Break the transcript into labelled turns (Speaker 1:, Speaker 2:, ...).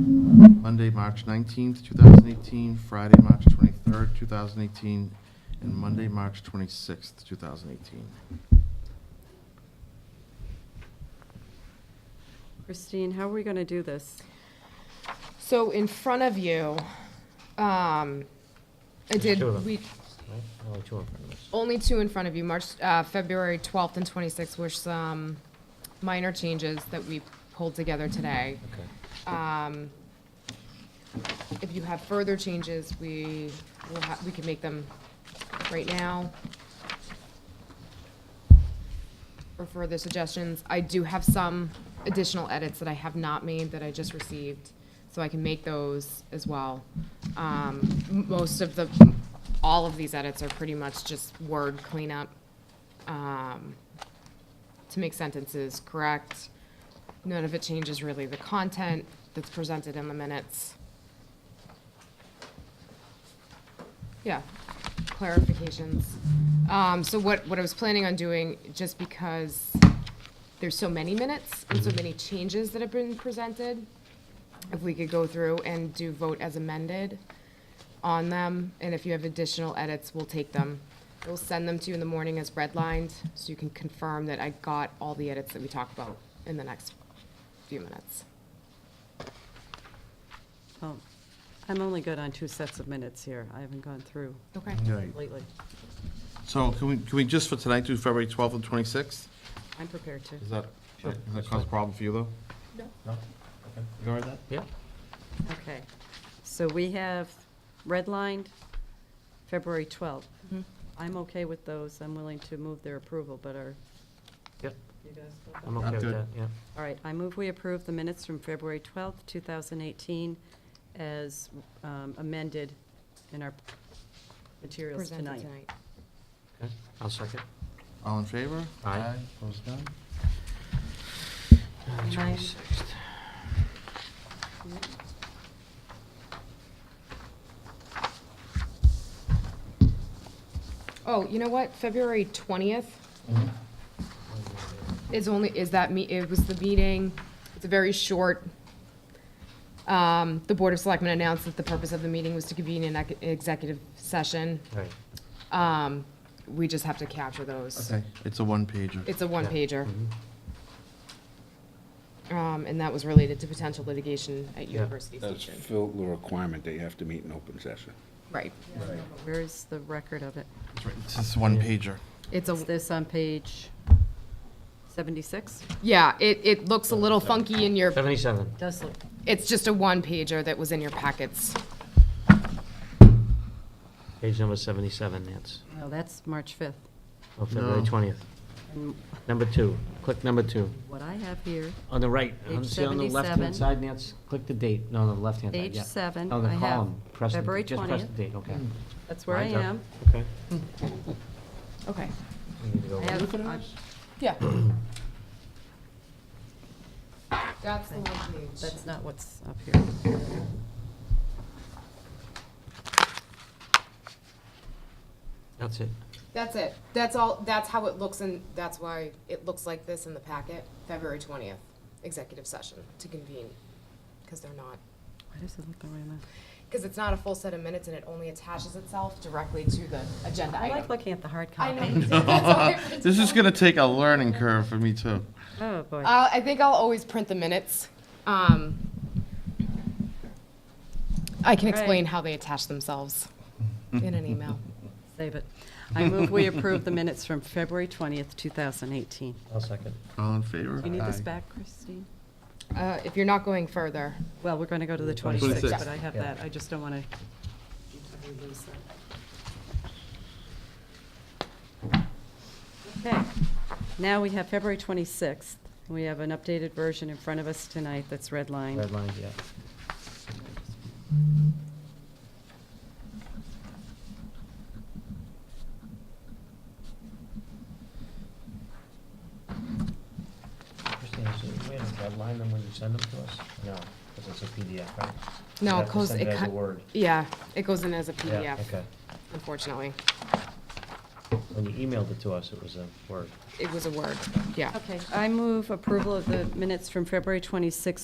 Speaker 1: Monday, March 19th, 2018, Friday, March 23rd, 2018, and Monday, March 26th, 2018.
Speaker 2: Christine, how are we going to do this?
Speaker 3: So in front of you, um, I
Speaker 4: There's
Speaker 3: did,
Speaker 4: two of them.
Speaker 3: we,
Speaker 4: Right?
Speaker 1: Oh,
Speaker 4: Only two in front of us.
Speaker 3: only two in front of you, March, uh, February 12th and 26th were some minor changes that we pulled together today.
Speaker 4: Okay.
Speaker 3: Um, if you have further changes, we will ha- we can make them right now. Or further suggestions, I do have some additional edits that I have not made that I just received, so I can make those as well. Um, m- most of the, all of these edits are pretty much just word cleanup. Um, to make sentences correct. None of it changes really the content that's presented in the minutes. Yeah, clarifications. Um, so what, what I was planning on doing, just because there's so many minutes and so many changes that have been presented, if we could go through and do vote as amended on them, and if you have additional edits, we'll take them. We'll send them to you in the morning as redlined, so you can confirm that I got all the edits that we talked about in the next few minutes.
Speaker 2: Oh, I'm only good on two sets of minutes here. I haven't gone through
Speaker 3: Okay.
Speaker 2: lately.
Speaker 1: So can we, can we just for tonight do February 12th and 26th?
Speaker 2: I'm prepared to.
Speaker 1: Is that, does that cause a problem for you, though?
Speaker 4: No?
Speaker 1: You all right with that?
Speaker 4: Yeah.
Speaker 2: Okay. So we have redlined February 12th.
Speaker 3: Mm-hmm.
Speaker 2: I'm okay with those. I'm willing to move their approval, but are
Speaker 4: Yep.
Speaker 2: you guys?
Speaker 4: I'm okay with
Speaker 1: good.
Speaker 4: that, yeah.
Speaker 2: All right, I move we approve the minutes from February 12th, 2018, as um, amended in our materials
Speaker 3: Presented
Speaker 2: tonight.
Speaker 3: tonight.
Speaker 4: Okay. I'll second.
Speaker 1: All in favor?
Speaker 4: Aye.
Speaker 1: Opposed, none?
Speaker 2: And I-
Speaker 3: Oh, you know what? February twentieth is only, is that me, it was the meeting, it's a very short. Um, the Board of Selectmen announced that the purpose of the meeting was to convene an ec- executive session.
Speaker 4: All right.
Speaker 3: Um, we just have to capture those.
Speaker 1: Okay, it's a one-pager.
Speaker 3: It's a one pager.
Speaker 1: Mm-hmm.
Speaker 3: Um, and that was related to potential litigation at University
Speaker 5: That's
Speaker 3: Station.
Speaker 5: filled the requirement that you have to meet in open session.
Speaker 3: Right.
Speaker 2: Where is the record of it?
Speaker 1: It's just one pager.
Speaker 3: It's a,
Speaker 2: Is this on page 76?
Speaker 3: yeah, it, it looks a little funky in your,
Speaker 4: Seventy-seven.
Speaker 2: Does look.
Speaker 3: it's just a one pager that was in your packets.
Speaker 4: Page number seventy-seven, Nance.
Speaker 2: No, that's March 5th.
Speaker 4: Oh, February
Speaker 1: No.
Speaker 4: twentieth.
Speaker 2: And
Speaker 4: Number two. Click number two.
Speaker 2: What I have here,
Speaker 4: On the right. on-
Speaker 2: Page
Speaker 4: See on the left-hand
Speaker 2: 77.
Speaker 4: side, Nance? Click the date. No, on the left-hand side,
Speaker 2: page
Speaker 4: yeah.
Speaker 2: seven,
Speaker 4: On the
Speaker 2: I have
Speaker 4: column. Press the-
Speaker 2: February
Speaker 4: Just press
Speaker 2: 20th.
Speaker 4: the date, okay.
Speaker 2: That's where I
Speaker 4: Mine's up.
Speaker 2: am.
Speaker 4: Okay.
Speaker 3: Okay.
Speaker 4: We need to go
Speaker 2: I
Speaker 4: over.
Speaker 2: have, I-
Speaker 3: Yeah. That's the one page.
Speaker 2: that's not what's up here.
Speaker 4: That's it.
Speaker 3: That's it. That's all, that's how it looks and that's why it looks like this in the packet, February twentieth, executive session to convene. Because they're not,
Speaker 2: Why does it look the way I'm
Speaker 3: because it's not a full set of minutes and it only attaches itself directly to the agenda
Speaker 2: I like
Speaker 3: item.
Speaker 2: looking at the hard
Speaker 3: I
Speaker 2: copy.
Speaker 3: know. you do. That's why I-
Speaker 1: This is gonna take a learning curve for me, too.
Speaker 2: Oh, boy.
Speaker 3: Uh, I think I'll always print the minutes. Um, I can explain
Speaker 2: Right.
Speaker 3: how they attach themselves in an email.
Speaker 2: Save it. I move we approve the minutes from February 20th, 2018.
Speaker 4: I'll second.
Speaker 1: All in favor?
Speaker 2: Do you need this
Speaker 1: Aye.
Speaker 2: back, Christine?
Speaker 3: Uh, if you're not going further,
Speaker 2: Well, we're going to go to the
Speaker 4: 26th,
Speaker 2: 26th, but I have
Speaker 4: yeah.
Speaker 2: that. I just don't want to. Okay, now we have February 26th. We have an updated version in front of us tonight that's redlined.
Speaker 4: Red line, yeah. Christina, so you have to redline them when you send them to us? No, because it's a PDF, right?
Speaker 3: No,
Speaker 4: You have
Speaker 3: it
Speaker 4: to
Speaker 3: goes-
Speaker 4: send
Speaker 3: it
Speaker 4: it as a
Speaker 3: cut-
Speaker 4: Word.
Speaker 3: yeah, it goes in as a
Speaker 4: Yeah,
Speaker 3: PDF,
Speaker 4: okay.
Speaker 3: unfortunately.
Speaker 4: When you emailed it to us, it was a Word.
Speaker 3: It was a word, yeah.
Speaker 2: Okay, I move approval of the minutes from February 26th,